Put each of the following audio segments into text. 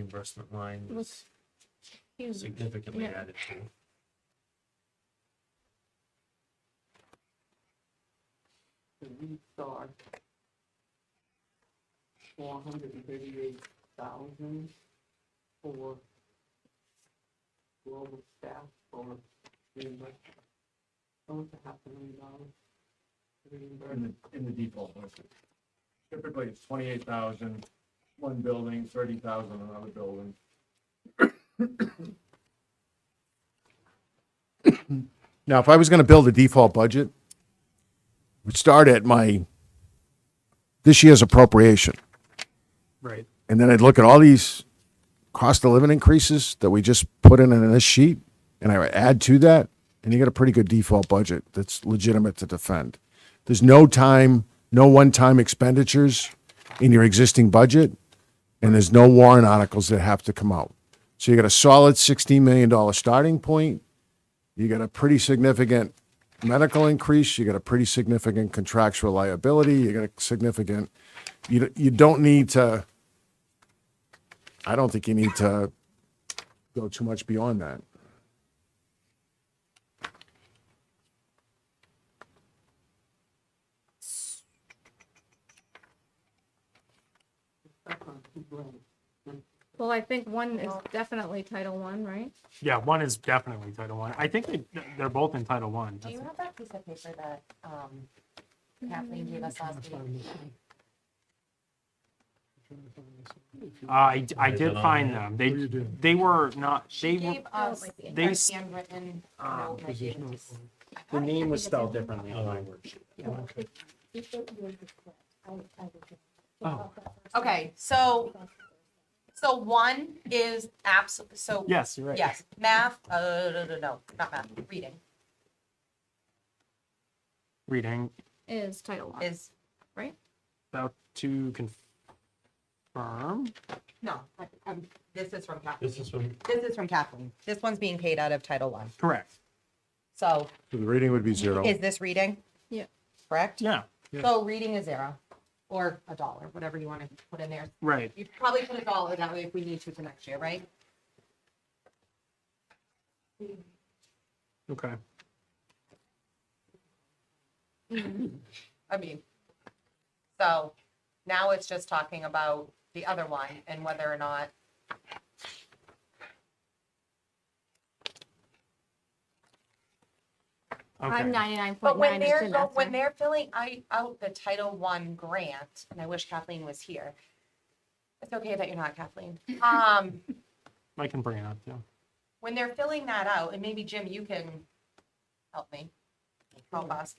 reimbursement line was Here's- significantly Mm. yeah. added to. the restart. Four hundred and thirty-eight thousand for global staff for reimbursement. Almost a half a million dollars. in Reimbursement, the, in the default budget. Typically, it's twenty-eight thousand, one building, thirty thousand, another building. Now, if I was going to build a default budget, we'd start at my, this year's appropriation. Right. And then I'd look at all these cost of living increases that we just put in in this sheet, and I would add to that, and you get a pretty good default budget that's legitimate to defend. There's no time, no one-time expenditures in your existing budget, and there's no warrant articles that have to come out. So you got a solid sixteen million dollar starting point. You got a pretty significant medical increase. You got a pretty significant contractual liability. You got a significant. You you don't need to. I don't think you need to go too much beyond that. that's on two grand. Well, I think one is definitely Title One, right? Yeah, one is definitely Title One. I think they, they're both in Title One. Do you have that piece of paper that um, Kathleen gave us last week? Uh, I, I did find them. They, they were not, they She were, gave us like the- her They s- handwritten Ah, note. and I gave it to s- I the thought I name was copied it spelled in. differently on my worksheet. Oh, Okay, so, so one is abs, so. yes, you're right. Yes, math, uh, no, no, no, not math, reading Reading Is Title One. is, about to confirm. no, I- I'm- this is from Kathleen. This is from, This is from Kathleen. This one's being paid out of Title One. Correct. So So the rating would be zero. is this reading? Yeah. Correct? Yeah, So reading is zero or a dollar, whatever you want to put in there. right. You probably put a dollar that way if we need to for next year, right? Okay. I mean, so now it's just talking about the other one and whether or not. I'm Okay. ninety-nine But point when nine. they're, go- when they're filling i- out the Title One grant, and I wish Kathleen was here. It's okay that you're not Kathleen. Um, I can bring it up, yeah. when they're filling that out, and maybe Jim, you can help me, help us.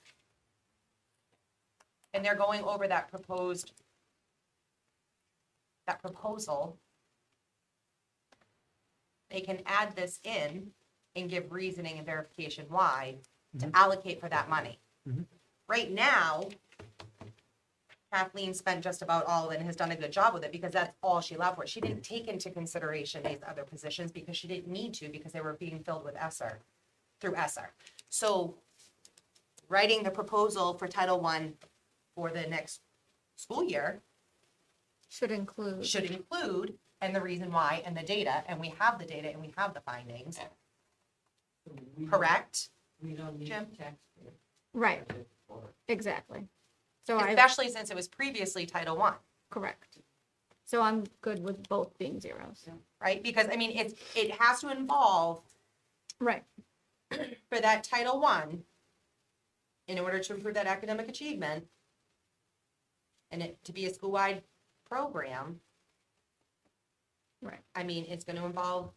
And they're going over that proposed, that proposal. They can add this in and give reasoning and verification why to allocate for that money. Mhm. Right now, Kathleen spent just about all of it and has done a good job with it because that's all she allowed for. She didn't take into consideration these other positions because she didn't need to because they were being filled with Esser, through Esser. So writing the proposal for Title One for the next school year Should include. should include and the reason why and the data, and we have the data and we have the findings, So we- correct? We don't need Jim? taxpayer Right, budget for exactly. So I, Especially since it was previously Title One. correct. So I'm good with both being zeros. right? Because I mean, it's, it has to involve Right, for that Title One, in order to improve that academic achievement, and it to be a school-wide program, right. I mean, it's gonna involve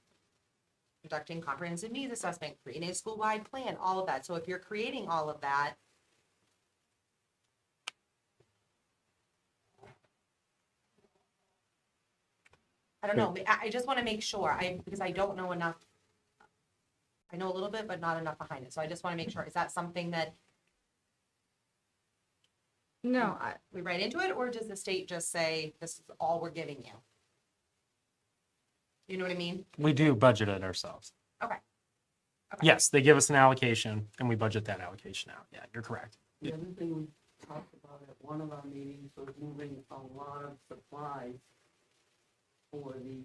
conducting comprehensive needs assessment, creating a school-wide plan, all of that. So if you're creating all of that, I don't know, I, I just wanna make sure, I, because I don't know enough. I know a little bit, but not enough behind it, so I just wanna make sure, is that something that No, I, we write into it, or does the state just say, this is all we're giving you? You know what I mean? We do budget it ourselves. Okay. Okay. Yes, they give us an allocation and we budget that allocation out. Yeah, you're correct. The other thing we talked about at one of our meetings was moving a lot of supplies for the